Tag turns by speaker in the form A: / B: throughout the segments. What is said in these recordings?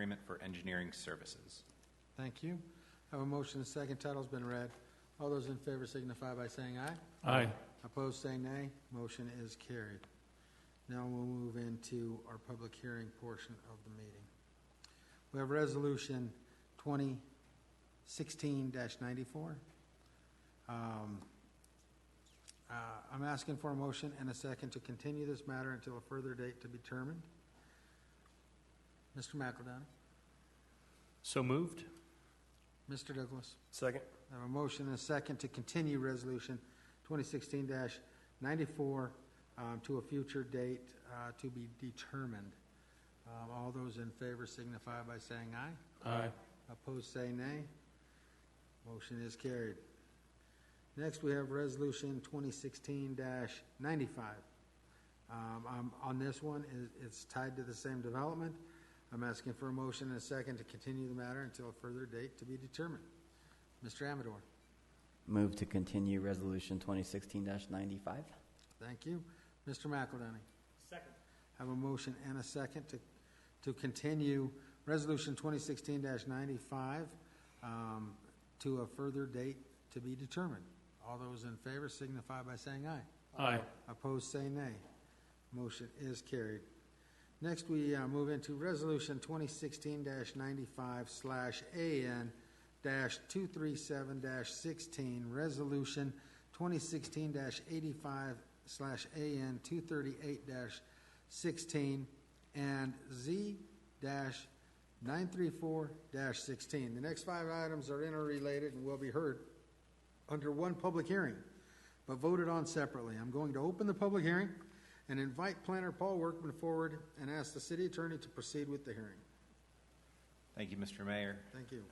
A: agreement for engineering services.
B: Thank you. I Have a motion, and a second, title's been read. All those in favor signify by saying aye.
C: Aye.
B: Opposed, say nay. Motion is carried. Now we'll move into our public hearing portion of the meeting. We have Resolution 2016-94. Um, uh, I'm asking for a motion and a second to continue this matter until a further date to be determined. Mr. McEldowney?
C: So moved?
B: Mr. Douglas?
D: Second?
B: I have a motion and a second to continue Resolution 2016-94 um, to a future date uh, to be determined. Um, All those in favor signify by saying aye.
C: Aye.
B: Opposed, say nay. Motion is carried. Next, we have Resolution 2016-95. Um, I'm- On this one, i- it's tied to the same development. I'm asking for a motion and a second to continue the matter until a further date to be determined. Mr. Amador,
E: Move to continue Resolution 2016-95.
B: thank you. Mr. McElhenney,
C: Second.
B: have a motion and a second to, to continue Resolution 2016-95 um, to a further date to be determined. All those in favor signify by saying aye.
C: Aye.
B: Opposed, say nay. Motion is carried. Next, we uh, move into Resolution 2016-95/AN-237-16, Resolution 2016-85/AN-238-16, and Z-934-16. The next five items are interrelated and will be heard under one public hearing, but voted on separately. I'm going to open the public hearing and invite planner Paul Workman forward and ask the city attorney to proceed with the hearing.
A: Thank you, Mr. Mayor.
B: Thank you.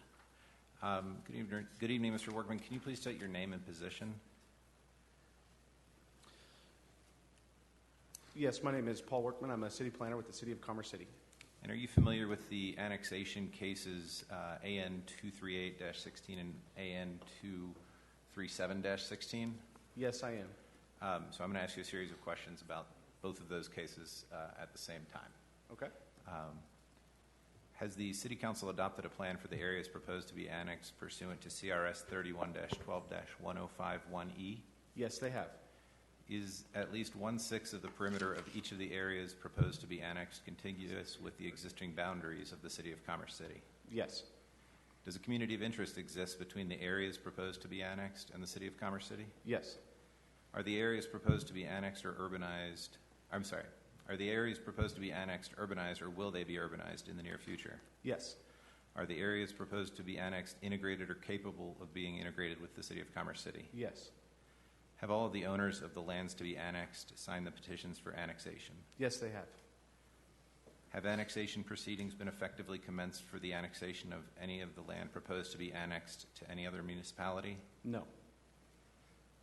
A: Um, Good evening, good evening, Mr. Workman. Can you please state your name and position?
D: Yes, my name is Paul Workman. I'm a city planner with the City of Commerce City.
A: And are you familiar with the annexation cases uh, AN 238-16 and AN 237-16?
D: Yes, I am.
A: Um, So I'm going to ask you a series of questions about both of those cases uh, at the same time.
D: Okay.
A: Um, Has the city council adopted a plan for the areas proposed to be annexed pursuant to CRS 31-12-1051E?
D: Yes, they have.
A: Is at least one-sixth of the perimeter of each of the areas proposed to be annexed contiguous with the existing boundaries of the city of Commerce City?
D: Yes.
A: Does a community of interest exist between the areas proposed to be annexed and the city of Commerce City?
D: Yes.
A: Are the areas proposed to be annexed or urbanized, I'm sorry, are the areas proposed to be annexed urbanized or will they be urbanized in the near future?
D: Yes.
A: Are the areas proposed to be annexed integrated or capable of being integrated with the City of Commerce City?
D: Yes.
A: Have all of the owners of the lands to be annexed signed the petitions for annexation?
D: Yes, they have.
A: Have annexation proceedings been effectively commenced for the annexation of any of the land proposed to be annexed to any other municipality?
D: No.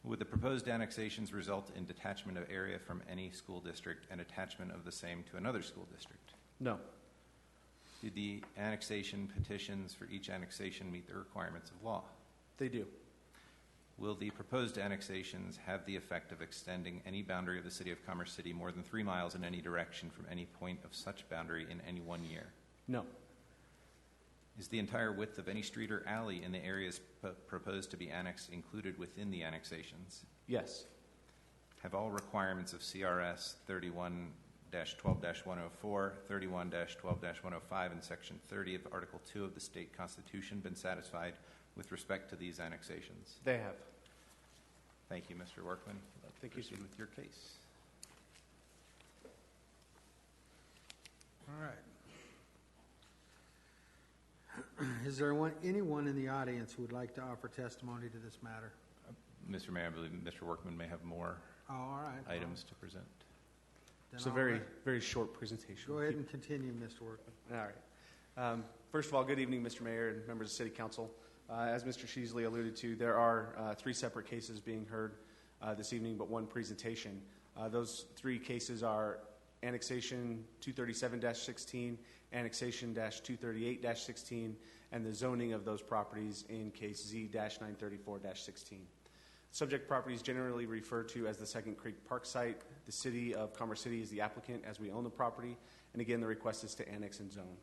A: Would the proposed annexations result in detachment of area from any school district and attachment of the same to another school district?
D: No.
A: Did the annexation petitions for each annexation meet the requirements of law?
D: They do.
A: Will the proposed annexations have the effect of extending any boundary of the City of Commerce City more than three miles in any direction from any point of such boundary in any one year?
D: No.
A: Is the entire width of any street or alley in the areas p- proposed to be annexed included within the annexations?
D: Yes.
A: Have all requirements of CRS 31 12 104, 31 12 105, and Section 30 of Article 2 of the State Constitution been satisfied with respect to these annexations?
D: They have.
A: Thank you, Mr. Workman.
D: Thank you, sir.
A: Proceed with your case.
B: All right. Is there one, anyone in the audience who would like to offer testimony to this matter?
A: Mr. Mayor, I believe Mr. Workman may have more
B: Oh, all right.
A: items to present.
B: Then
D: It's a
B: I'll
D: very,
B: let-
D: very short presentation.
B: Go ahead and continue, Mr. Workman.
D: All right. Um, First of all, good evening, Mr. Mayor and members of City Council. Uh, As Mr. Sheasley alluded to, there are uh, three separate cases being heard uh, this evening, but one presentation. Uh, Those three cases are annexation 237-16, annexation 238-16, and the zoning of those properties in case Z-934-16. Subject properties generally referred to as the Second Creek Park site. The city of Commerce City is the applicant, as we own the property. And again, the request is to annex and zone.